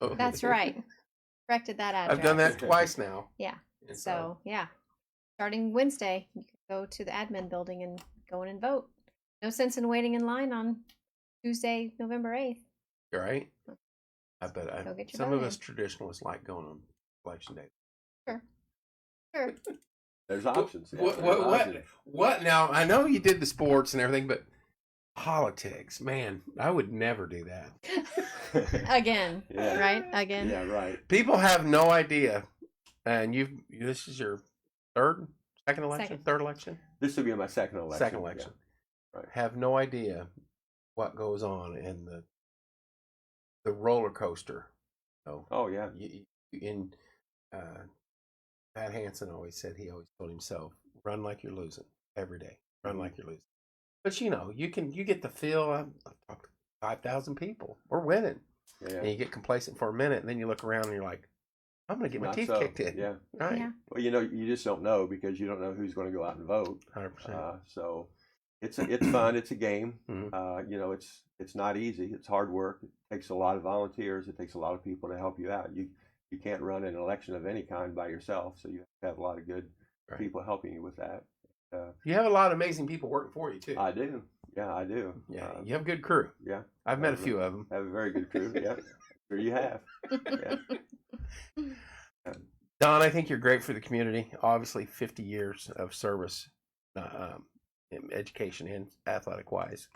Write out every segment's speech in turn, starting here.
Oh. That's right. Corrected that address. I've done that twice now. Yeah. And So, yeah. Starting Wednesday, you can go to the admin building and go in and vote. No sense in waiting in line on Tuesday, November 8th. you're right. I bet I, Go get your some of vote us traditionalists like going on election day. Sure. There's options. yeah, What, there's what, what, options. what? Now, I know you did the sports and everything, but politics, man, I would never do that. Again. Yeah. Right? Again. Yeah, right. People have no idea. And you've, this is your third, second election, Second. third election? This would be my second election. second yeah. election. Right. Have no idea what goes on in the the roller coaster. So Oh yeah. you, you- in uh, Pat Hansen always said he always told himself, "Run like you're losing every day. Run Mm-hmm. like you're losing." But you know, you can you get the feel. I've, I've talked to five thousand people. We're winning, Yeah. and you get complacent for a minute, and then you look around and you're like, "I'm gonna get my Not teeth so, kicked in." Yeah. Right. Yeah. Well, you know, you just don't know because you don't know who's going to go out and vote. Hundred percent. Uh, so it's a, it's fun. It's a game. Mhm. Uh, you know, it's it's not easy. It's hard work. It takes a lot of volunteers. It takes a lot of people to help you out. You you can't run an election of any kind by yourself. So you have a lot of good Right. people helping you with that. You have a lot of amazing people working for you too. I do. Yeah, I do. yeah, Uh, you have a good crew. yeah. I've met a I've- few of them. Have a very good crew. yeah. Sure you have. Yeah. Don, I think you're great for the community. Obviously, 50 years of service, uh, um, in education and athletic wise.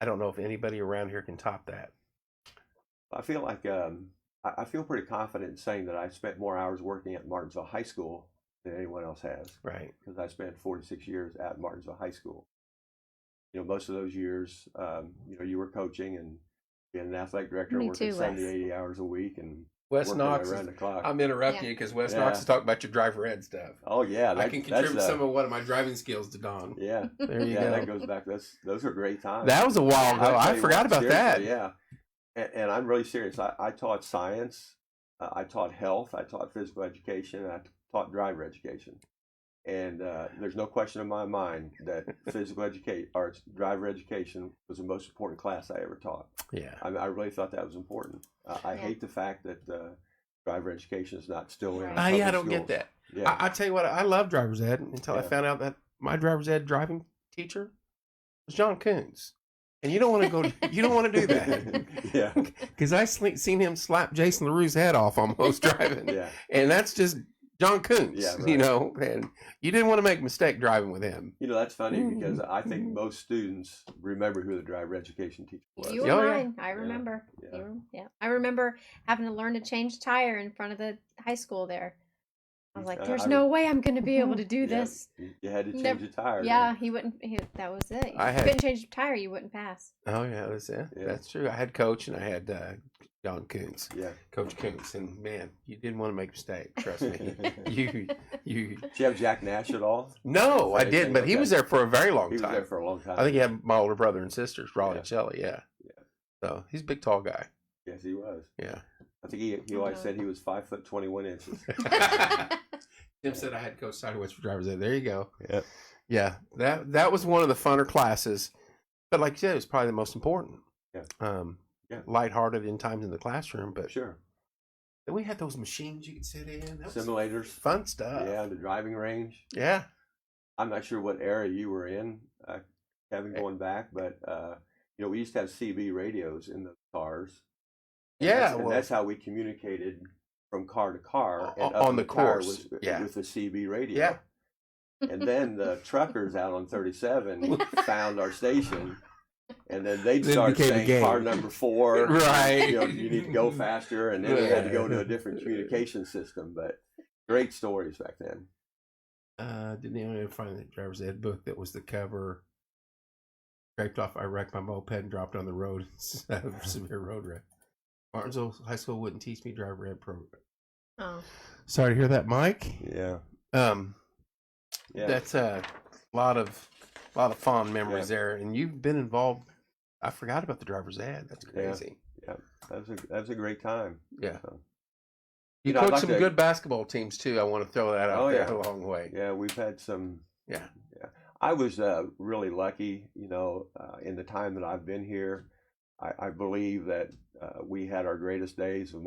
I don't know if anybody around here can top that. I feel like um, I, I feel pretty confident in saying that I spent more hours working at Martinsville High School than anyone else has Right. because I spent 46 years at Martinsville High School. You know, most of those years, um, you know, you were coaching and being an athletic director, Me working too, 70, Wes. 80 hours a week, and Wes working Knox. around Is, the clock. I'm interrupting you because Wes Yeah. Knox is talking about your drive red stuff. oh yeah, I that- can that's, contribute uh, some of one of my driving skills to Don. Yeah, There you yeah, that go. goes back. That's those are great times. That was a while ago. I'll I tell you forgot what, about that. seriously, Yeah. And, and I'm really serious. I, I taught science, uh, I taught health, I taught physical education, and I t- taught driver education. And uh, there's no question in my mind that physical education or driver education was the most important class I ever taught. Yeah. I, mean, I really thought that was important. I, I Yeah. hate the fact that uh, driver education is not still in. Right. our I, Ah, yeah, I public don't get schools. that. Yeah, I, I tell you what, I love driver's ed until I Yeah. found out that my driver's ed driving teacher was John Coons. And you don't want to go, you don't want to do that. yeah, Because I sle- seen him slap Jason LaRue's head off almost driving. yeah. And that's just John Coons, Yeah, you right. know. And you didn't want to make a mistake driving with him. You know, that's funny Mm-hmm. Mm, because I think mm. most students remember who the driver education teacher was. You were Oh, yeah. mine. I remember. You yeah. were- Yeah. I remember having to learn to change tire in front of the high school there. I was Yeah, like, there's uh, I- no way I'm going to be able to do Yeah. this. You you had to change Never- your tire. didn't Yeah, he wouldn't. He, that was it. If I you had- couldn't change your tire, you wouldn't pass. Oh, yeah, that's it. Yeah. That's true. I had Coach and I had uh, John Coons, you? Yeah. Coach Coons. And man, you didn't want to make a mistake. Trust me. you, you, Did you have Jack Nash at all? no, I Anything, didn't. But he okay. was there for a very He long was there time. for a long time. I think he had my older brother and sisters, Raleigh Yeah. and Shelley. Yeah. So he's a big, tall guy. yes, he was. Yeah. I think he, he always Mhm. said he was five foot twenty one inches. Tim said I had Coach Sideways for driver's ed. There you go. Yeah. Yeah, that that was one of the funner classes, but like you said, it was probably the most important. Yeah. Um, Yeah. lighthearted in times in the classroom, but Sure. we had those machines you could sit in. That was Simulators. fun stuff. Yeah, the driving range. Yeah. I'm not sure what era you were in, uh, Kevin, Eh going back, but uh, you know, we used to have CB radios in the cars. And Yeah, that's, and well- that's how we communicated from car to car O- and up on in the tower course, was- yeah. with the CB radio. Yeah. and then the truckers out on 37 found our station and then they'd Then it start became a saying game. car number four Right. you, know, you need to go faster and then we had to go to a different communication system but great stories back then Uh, didn't even find the driver's ed book that was the cover. Scraped off, I wrecked my moped and dropped on the road. Severe road wreck. Martinsville High School wouldn't teach me driver ed program. Oh, Sorry to hear that, Mike. yeah Um, yeah that's a lot of lot of fond memories there and you've been involved i forgot about the driver's ad that's Yeah. crazy that was a that was a great time yeah, So, you, You know, I'd coached like some to- good basketball teams too i want to throw that out Oh, there yeah. a long way yeah we've had some Yeah. yeah i was uh, really lucky you know uh, in the time that i've been here i, I believe that uh, we had our greatest days of